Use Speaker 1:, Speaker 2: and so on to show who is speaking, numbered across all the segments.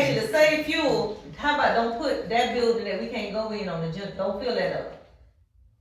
Speaker 1: say fuel, how about don't put that building that we can't go in on the gen, don't fill that up.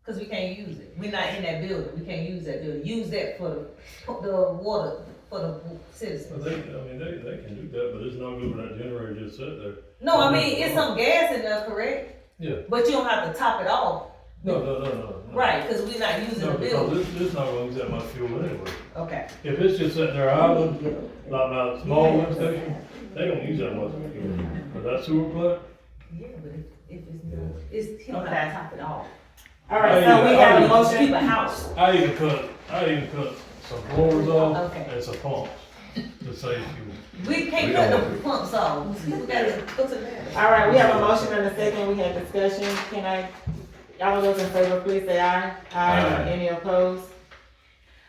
Speaker 1: Cause we can't use it, we're not in that building, we can't use that building, use that for the, for the water, for the
Speaker 2: Well,
Speaker 1: citizens.
Speaker 2: they, I mean, they, they can do that, but it's not good when that generator just sit there.
Speaker 1: No, I mean, it's some gas in there, correct?
Speaker 2: Yeah.
Speaker 1: But you don't have to top it off,
Speaker 2: No, no, no, no. no.
Speaker 1: right, cause we're not using
Speaker 2: No,
Speaker 1: the
Speaker 2: because
Speaker 1: building,
Speaker 2: this, this not gonna use that much fuel anyway.
Speaker 1: okay.
Speaker 2: If it's just sitting there idling, like by the small lift station, they don't use that much fuel. But that sewer plant,
Speaker 1: Yeah, but if, if it's not, it's, he don't have to top it off.
Speaker 3: All right, so we have a
Speaker 1: Keep
Speaker 3: motion.
Speaker 1: a house.
Speaker 2: I even cut, I even cut some floors off
Speaker 1: Okay.
Speaker 2: and some pumps to save fuel.
Speaker 1: We can't cut the pumps off, we gotta put it there.
Speaker 3: All right, we have a motion and a second. We had discussion. Can I, all those in favor, please say aye. Aye.
Speaker 2: Aye.
Speaker 3: Any opposed?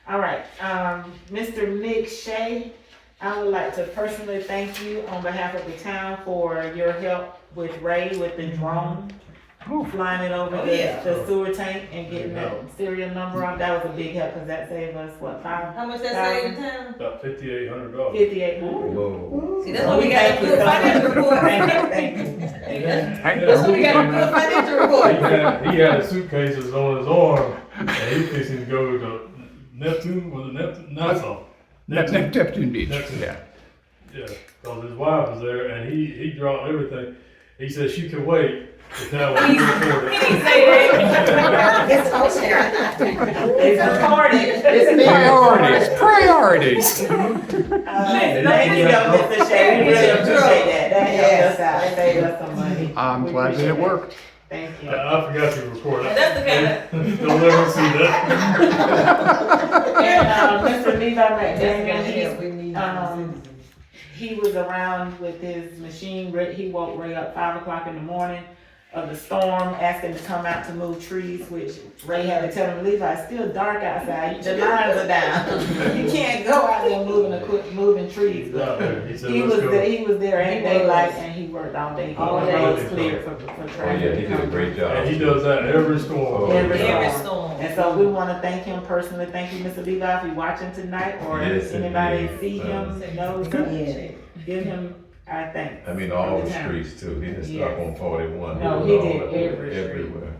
Speaker 3: All right, um, Mr. Nick Shea, I would like to personally thank you on behalf of the town for your help with Ray with the drone. Flying it over
Speaker 1: Oh,
Speaker 3: the,
Speaker 1: yeah.
Speaker 3: the sewer tank and getting that
Speaker 2: Yeah.
Speaker 3: serial number on. That was a big help because that saved us, what, five,
Speaker 1: How much that save in
Speaker 3: Um,
Speaker 1: time?
Speaker 2: About fifty-eight hundred dollars.
Speaker 3: fifty-eight hundred?
Speaker 4: Whoa.
Speaker 1: See, that's why we got a
Speaker 3: Thank you
Speaker 1: good
Speaker 3: so
Speaker 1: financial
Speaker 3: much.
Speaker 1: report.
Speaker 3: Thank you, thank you.
Speaker 1: That's
Speaker 2: Yeah.
Speaker 1: why we got a good financial
Speaker 2: He
Speaker 1: report.
Speaker 2: had, he had suitcases on his arm and he fixing to go to Neptune, was it Neptune? Nassau.
Speaker 4: That's
Speaker 2: Neptune.
Speaker 4: Neptune Beach,
Speaker 2: Neptune.
Speaker 4: yeah.
Speaker 2: Yeah, because his wife was there, and he he dropped everything. He said she could wait, but that was recorded.
Speaker 1: It's okay.
Speaker 3: It's recorded. It's
Speaker 4: Priorities, priorities.
Speaker 3: Thank you, though, Mr. Shea, we really appreciate that, that helped us out, that saved us some money.
Speaker 4: I'm
Speaker 3: We
Speaker 4: glad that
Speaker 3: appreciate
Speaker 4: it worked.
Speaker 3: Thank
Speaker 2: I,
Speaker 3: you.
Speaker 2: I forgot to record that.
Speaker 1: That's okay.
Speaker 2: Don't ever see that.
Speaker 3: And, uh, Mr. Levi McDaniel,
Speaker 1: We need.
Speaker 3: Um, he, he was around with his machine, Re- he woke Ray up five o'clock in the morning of the storm, asking to come out to move trees, which Ray had to tell him, Levi, it's still dark outside, the lines are down. You can't go out there moving, equi- moving trees,
Speaker 2: He's
Speaker 3: but
Speaker 2: out there. He said,
Speaker 3: He
Speaker 2: let's
Speaker 3: was there,
Speaker 2: go.
Speaker 3: he was there in
Speaker 1: He
Speaker 3: daylight
Speaker 1: was.
Speaker 3: and he worked all day.
Speaker 1: All
Speaker 3: All
Speaker 1: day.
Speaker 3: day was cleared for, for
Speaker 5: Oh, yeah, he
Speaker 3: traffic.
Speaker 5: did a great job.
Speaker 2: And he does that every storm.
Speaker 5: Oh,
Speaker 3: Every
Speaker 5: yeah.
Speaker 1: Every
Speaker 3: storm.
Speaker 1: storm.
Speaker 3: And so we wanna thank him personally. Thank you, Mr. Levi, if you're watching tonight or
Speaker 5: Yes,
Speaker 3: if anybody
Speaker 5: indeed.
Speaker 3: see him, knows him, give him our thanks.
Speaker 5: I mean, all the
Speaker 3: Yeah.
Speaker 5: streets too. He didn't stop
Speaker 3: Yes.
Speaker 5: on forty-one.
Speaker 3: No,
Speaker 5: was
Speaker 3: he
Speaker 5: all
Speaker 3: did
Speaker 5: over-
Speaker 3: every street.
Speaker 5: Everywhere.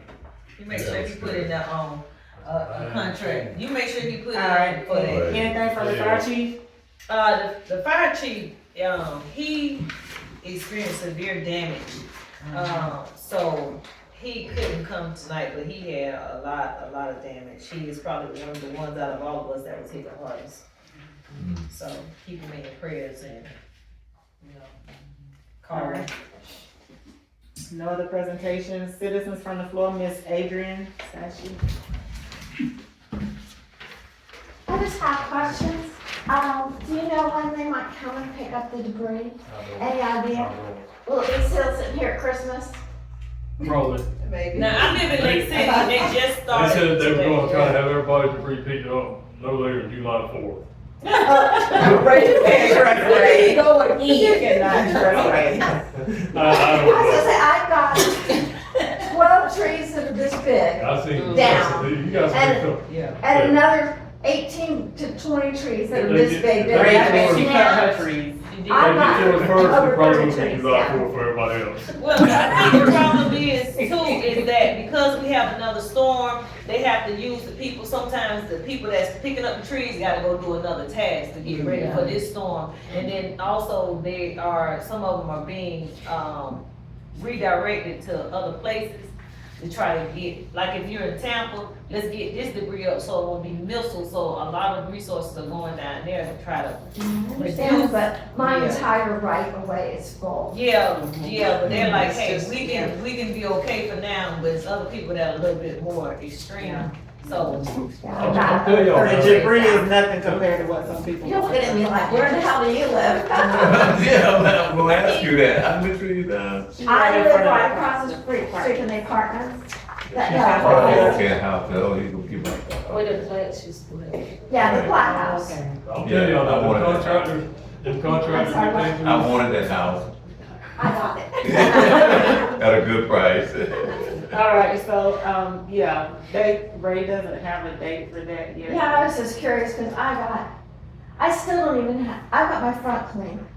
Speaker 1: You make sure you put in the, um, uh, a contract, you make sure you put
Speaker 3: All
Speaker 1: it in
Speaker 3: right,
Speaker 1: for that.
Speaker 3: anything from the fire chief?
Speaker 1: Uh, the, the fire chief, um, he experienced severe damage.
Speaker 3: Mm-hmm.
Speaker 1: Um, so he couldn't come tonight, but he had a lot, a lot of damage. He is probably one of the ones out of all of us that was hit the hardest.
Speaker 2: Mm-hmm.
Speaker 1: So keep him in your prayers and, you know,
Speaker 3: All
Speaker 1: call him.
Speaker 3: right. No other presentations. Citizens from the floor, Miss Adrian Sashi.
Speaker 6: I just have questions. Um, do you know when they might come and pick up the debris? Any idea? Will it be still sitting here at Christmas?
Speaker 2: Probably.
Speaker 1: Now, I live in Lake City, they just
Speaker 2: They
Speaker 1: started
Speaker 2: said they were
Speaker 1: today.
Speaker 2: going to try to have everybody to repeat it up no later than July fourth.
Speaker 3: You cannot trust Ray.
Speaker 2: I, I
Speaker 6: I was gonna
Speaker 2: don't know.
Speaker 6: say, I've got twelve trees that are this big
Speaker 2: I seen.
Speaker 6: Down.
Speaker 2: You guys
Speaker 6: And-
Speaker 2: can
Speaker 6: and another eighteen to twenty trees that are this big. that
Speaker 3: Ray,
Speaker 6: are
Speaker 3: I think she cut her
Speaker 6: snapped.
Speaker 3: trees.
Speaker 1: You did.
Speaker 6: I'm
Speaker 2: If you do it first,
Speaker 6: over
Speaker 2: it probably
Speaker 6: thirty
Speaker 2: will be
Speaker 6: trees
Speaker 2: July
Speaker 6: down.
Speaker 2: fourth for everybody else.
Speaker 1: Well, I think the problem is too, is that because we have another storm, they have to use the people, sometimes the people that's picking up the trees gotta go do another task to get ready for this storm. And then also they are, some of them are being, um, redirected to other places to try to get, like if you're in Tampa, let's get this debris up so it won't be missile, so a lot of resources are going down there to try to.
Speaker 6: I understand, but my entire right of way is full.
Speaker 1: Yeah, yeah, but they're like,
Speaker 7: It's
Speaker 1: hey,
Speaker 7: just-
Speaker 1: we can, we can be okay for now, but it's other people that are a little bit more extreme, so.
Speaker 2: I'll I'll tell y'all.
Speaker 3: The
Speaker 2: man.
Speaker 3: debris is nothing compared to what some people.
Speaker 6: You're looking at me like, where the hell do you live?
Speaker 5: Yeah, I'm not gonna ask you that. I literally, you uh, down.
Speaker 6: I live right across the street, street in the apartments. That- that-
Speaker 5: Oh, okay, how, oh, he's gonna keep like that.
Speaker 7: Where the plant she's going.
Speaker 6: Yeah, the Black House.
Speaker 2: I'll tell y'all,
Speaker 5: Yeah, I
Speaker 2: that
Speaker 5: wanted
Speaker 2: the
Speaker 5: that.
Speaker 2: contractors, the contractors
Speaker 6: I'm
Speaker 2: and
Speaker 6: sorry,
Speaker 2: things.
Speaker 5: I wanted that house
Speaker 6: I got it.
Speaker 5: at a good price.
Speaker 3: All right, so, um, yeah, they, Ray doesn't have a date for that yet.
Speaker 6: Yeah, I was just curious because I got, I still don't even have, I got my front clean.